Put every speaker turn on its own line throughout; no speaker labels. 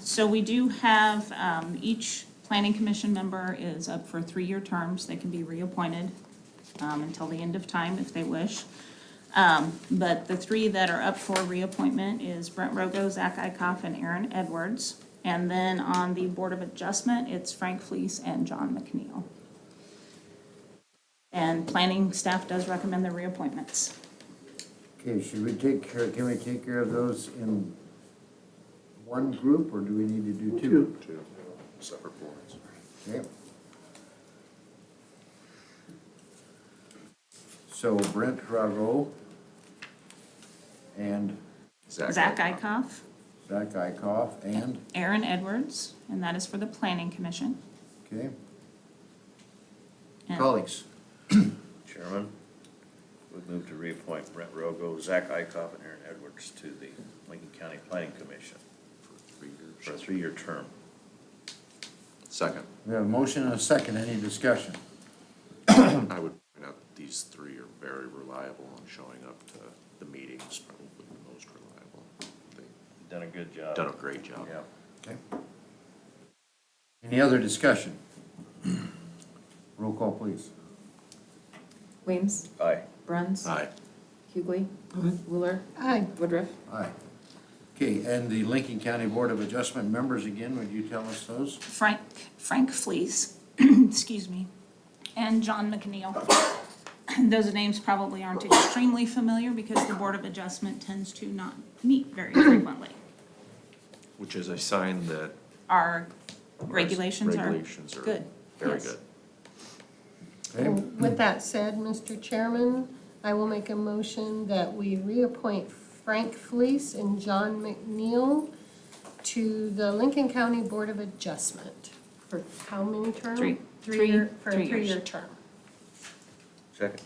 So we do have, um, each planning commission member is up for three-year terms. They can be reappointed, um, until the end of time if they wish. Um, but the three that are up for reappointment is Brent Rogo, Zach Ikoff, and Aaron Edwards. And then on the Board of Adjustment, it's Frank Fleece and John McNeil. And planning staff does recommend the reappointments.
Okay, should we take care, can we take care of those in one group, or do we need to do two?
Two separate boards.
Okay. So Brent Rago and
Zach Ikoff,
Zach Ikoff and,
Aaron Edwards, and that is for the planning commission.
okay,
And-
colleagues.
Chairman, would move to reappoint Brent Rogo, Zach Ikoff, and Aaron Edwards to the Lincoln County Planning Commission for a three-year term.
Second,
We have a motion and a second, any discussion?
I would point out that these three are very reliable on showing up to the meetings, probably the most reliable. They've
Done a good job.
done a great job.
Yeah.
Okay. Any other discussion? Roll call, please.
Weems.
Aye.
Bruns.
Aye.
Hughley. Wheeler. Woodruff.
Aye. Okay, and the Lincoln County Board of Adjustment members again, would you tell us those?
Frank, Frank Fleece, excuse me, and John McNeil. Those names probably aren't extremely familiar because the Board of Adjustment tends to not meet very frequently.
Which is a sign that.
Our regulations are
Regulations are
good.
very
yes.
good.
Okay,
With that said, Mr. Chairman, I will make a motion that we reappoint Frank Fleece and John McNeil to the Lincoln County Board of Adjustment for how many terms?
Three.
Three-year,
Three-
for
three
a three-year
years.
term.
Second.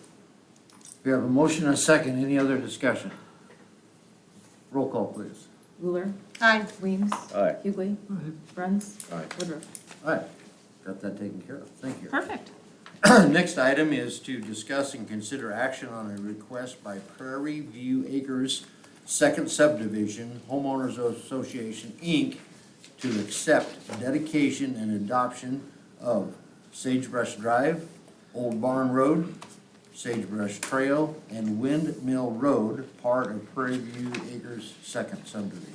we have a motion and a second, any other discussion? Roll call, please.
Wheeler.
Aye.
Weems.
Aye.
Hughley. Bruns. Woodruff.
Aye, got that taken care of, thank you.
Perfect.
Next item is to discuss and consider action on a request by Prairie View Acres Second Subdivision Homeowners Association, Inc. to accept dedication and adoption of Sagebrush Drive, Old Barn Road, Sagebrush Trail, and Windmill Road, part of Prairie View Acres Second Subdivision.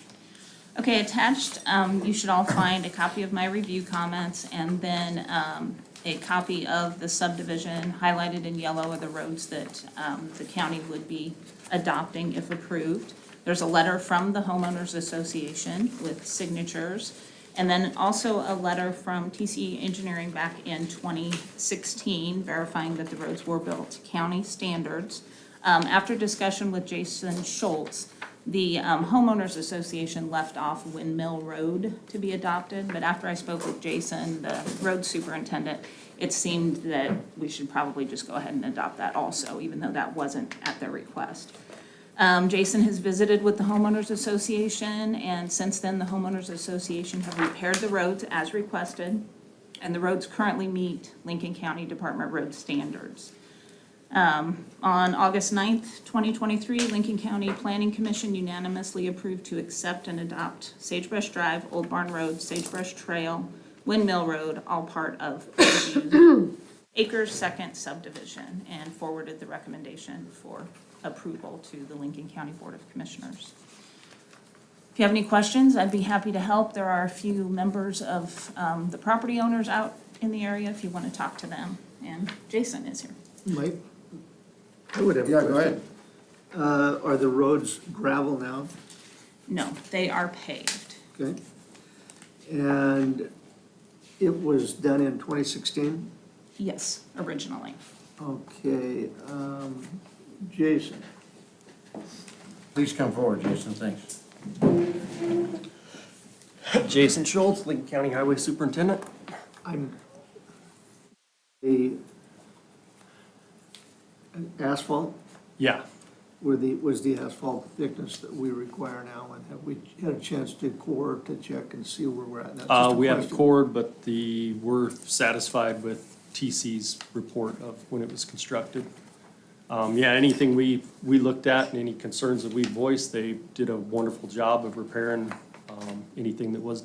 Okay, attached, um, you should all find a copy of my review comments and then, um, a copy of the subdivision highlighted in yellow are the roads that, um, the county would be adopting if approved. There's a letter from the homeowners association with signatures. And then also a letter from TCE Engineering back in twenty sixteen verifying that the roads were built to county standards. Um, after discussion with Jason Schultz, the um, homeowners association left off Windmill Road to be adopted, but after I spoke with Jason, the road superintendent, it seemed that we should probably just go ahead and adopt that also, even though that wasn't at their request. Um, Jason has visited with the homeowners association, and since then, the homeowners association have repaired the roads as requested, and the roads currently meet Lincoln County Department Road standards. On August 9th, 2023, Lincoln County Planning Commission unanimously approved to accept and adopt Sagebrush Drive, Old Barn Road, Sagebrush Trail, Windmill Road, all part of Prairie View Acres Second Subdivision, and forwarded the recommendation for approval to the Lincoln County Board of Commissioners. If you have any questions, I'd be happy to help. There are a few members of um, the property owners out in the area if you want to talk to them. And Jason is here.
Mike, I would have a
Yeah, go
question.
ahead.
Uh, are the roads gravel now?
No, they are paved.
Okay. And it was done in twenty sixteen?
Yes, originally.
Okay, um, Jason,
Please come forward, Jason, thanks.
Jason Schultz, Lincoln County Highway Superintendent.
I'm, the asphalt,
Yeah.
were the, was the asphalt thickness that we require now? And have we had a chance to core to check and see where we're at? That's just
Uh,
a
we have
question.
cord, but the, we're satisfied with TC's report of when it was constructed. Um, yeah, anything we, we looked at and any concerns that we voiced, they did a wonderful job of repairing, um, anything that was